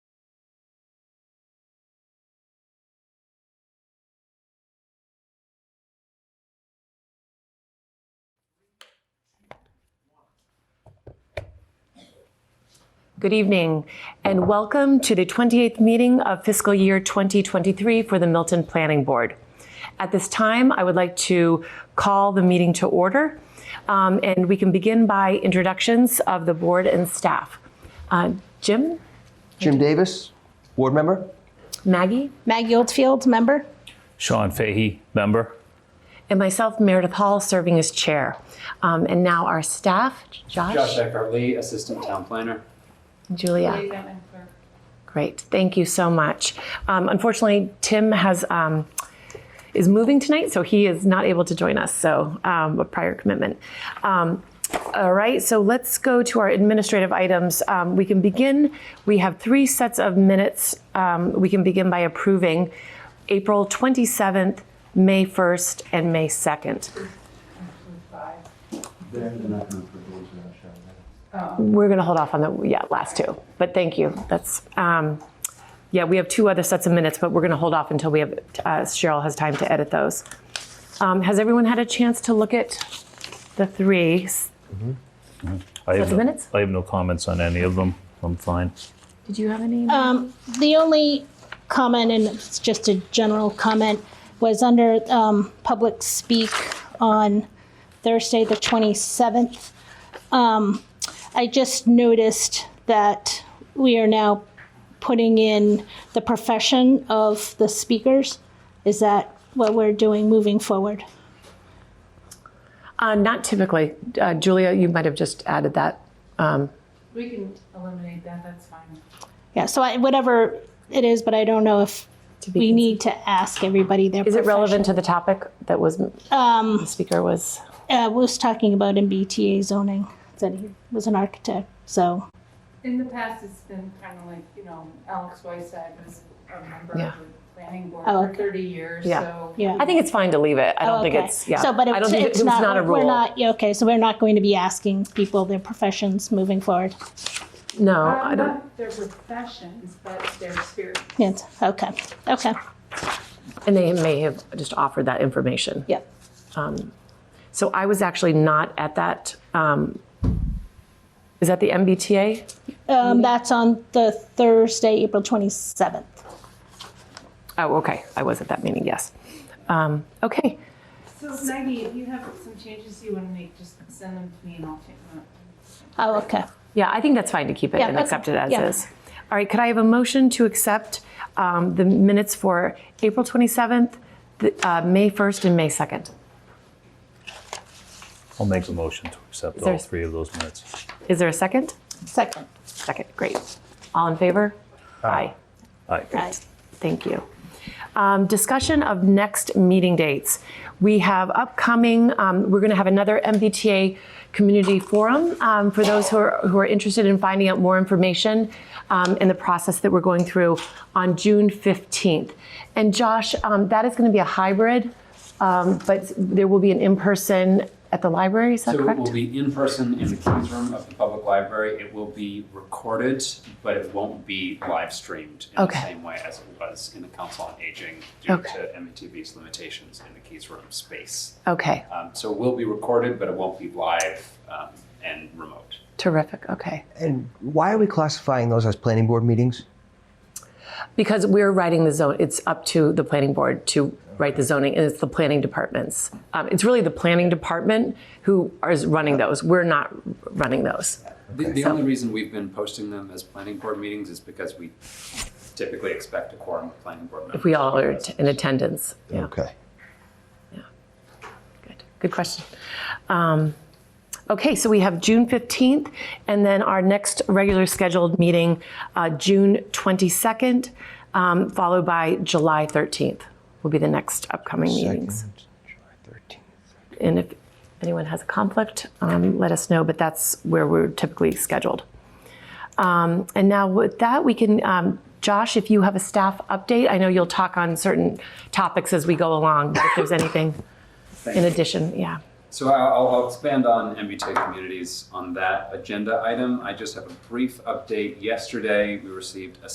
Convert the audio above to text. Good evening, and welcome to the 28th meeting of fiscal year 2023 for the Milton Planning Board. At this time, I would like to call the meeting to order, um, and we can begin by introductions of the board and staff. Uh, Jim, Jim Davis, board member. Maggie, Maggie Oldfield, member. Sean Fahey, member. and myself, Meredith Hall, serving as chair. Um, And now our staff, Josh Eckhart Lee, Assistant Town Planner. Julia. Great, thank you so much. Um, unfortunately, Tim has um, is moving tonight, so he is not able to join us. So um, a prior commitment. Um, all right, so let's go to our administrative items. Um, we can begin. We have three sets of minutes. Um, we can begin by approving April 27th, May 1st, and May 2nd. We're going to hold off on the yeah last two, but thank you. That's um, yeah. We have two other sets of minutes, but we're going to hold off until we have uh, Cheryl has time to edit those. Um, has everyone had a chance to look at the three? I have the no- minutes? I have no comments on any of them. I'm fine. Did you have any? Um, the only comment, and it's just a general comment, was under um, public speak on Thursday, the 27th. Um, I just noticed that we are now putting in the profession of the speakers. Is that what we're doing moving forward? Uh, not typically. Uh, Julia, you might have just added that. We can eliminate that, that's fine. Yeah, so I, whatever it is, but I don't know if To be we need to ask everybody their Is it relevant profession. to the topic that was Um, the speaker was? uh, was talking about in BTA zoning that he was an architect. So In the past, it's been kind of like, you know, Alex Whiteside was a member Yeah. of the planning board Oh, for okay. thirty years, Yeah. so. Um, yeah, I think it's fine to leave it. I don't Oh, think okay. it's yeah. So, but I don't it's, think it- it's it was not, not a We're rule. not yeah, okay. So we're not going to be asking people their professions moving forward. no, Um, I don't. Not their professions, but their spirit. Yes. Okay. Okay. And they may have just offered that information. Yep. So I was actually not at that. Um, is that the MBTA? Um, that's on the Thursday, April twenty seventh. Oh, okay. I was at that meeting, yes. Um, okay. So Maggie, if you have some changes you want to make, just send them to me and I'll take them. Oh, okay. Yeah, I think that's fine to keep it Yeah, and okay. accept it as Yeah. is. All right, could I have a motion to accept um, the minutes for April 27th, the, uh, May 1st, and May 2nd? I'll make a motion to accept all There's- three of those minutes. Is there a second? Second. Second, great. All in favor? Aye. Aye. Right. Thank you. Um, discussion of next meeting dates. We have upcoming, um, we're going to have another MBTA community forum um, for those who are, who are interested in finding out more information um, in the process that we're going through on June 15th. And Josh, um, that is going to be a hybrid, um, but there will be an in person at the library, is that So it correct? will be in person in the Kings Room of the Public Library. It will be recorded, but it won't be live streamed in the Okay. same way as it was in the Council on Aging due Okay. to MTV's limitations in the Keys Room space. okay, Um, So it will be recorded, but it won't be live um, and remote. terrific, okay. And why are we classifying those as planning board meetings? Because we're writing the zone, it's up to the planning board to write the zoning, and it's the planning departments. Um, it's really the planning department who is running those. We're not running those. The, the only reason we've been posting them as planning board meetings is because we typically expect a quorum of planning board members. If we all are in attendance. Yeah, Okay. good. Good question. Um, okay, so we have June 15th, and then our next regular scheduled meeting, uh, June 22nd, um, followed by July 13th will be the next upcoming meetings. Second, July 13th. And if anyone has a conflict, um, let us know, but that's where we're typically scheduled. Um, and now with that, we can, um, Josh, if you have a staff update, I know you'll talk on certain topics as we go along, but if there's anything in addition, yeah. So I- I'll, I'll expand on MBTA communities on that agenda item. I just have a brief update. Yesterday, we received a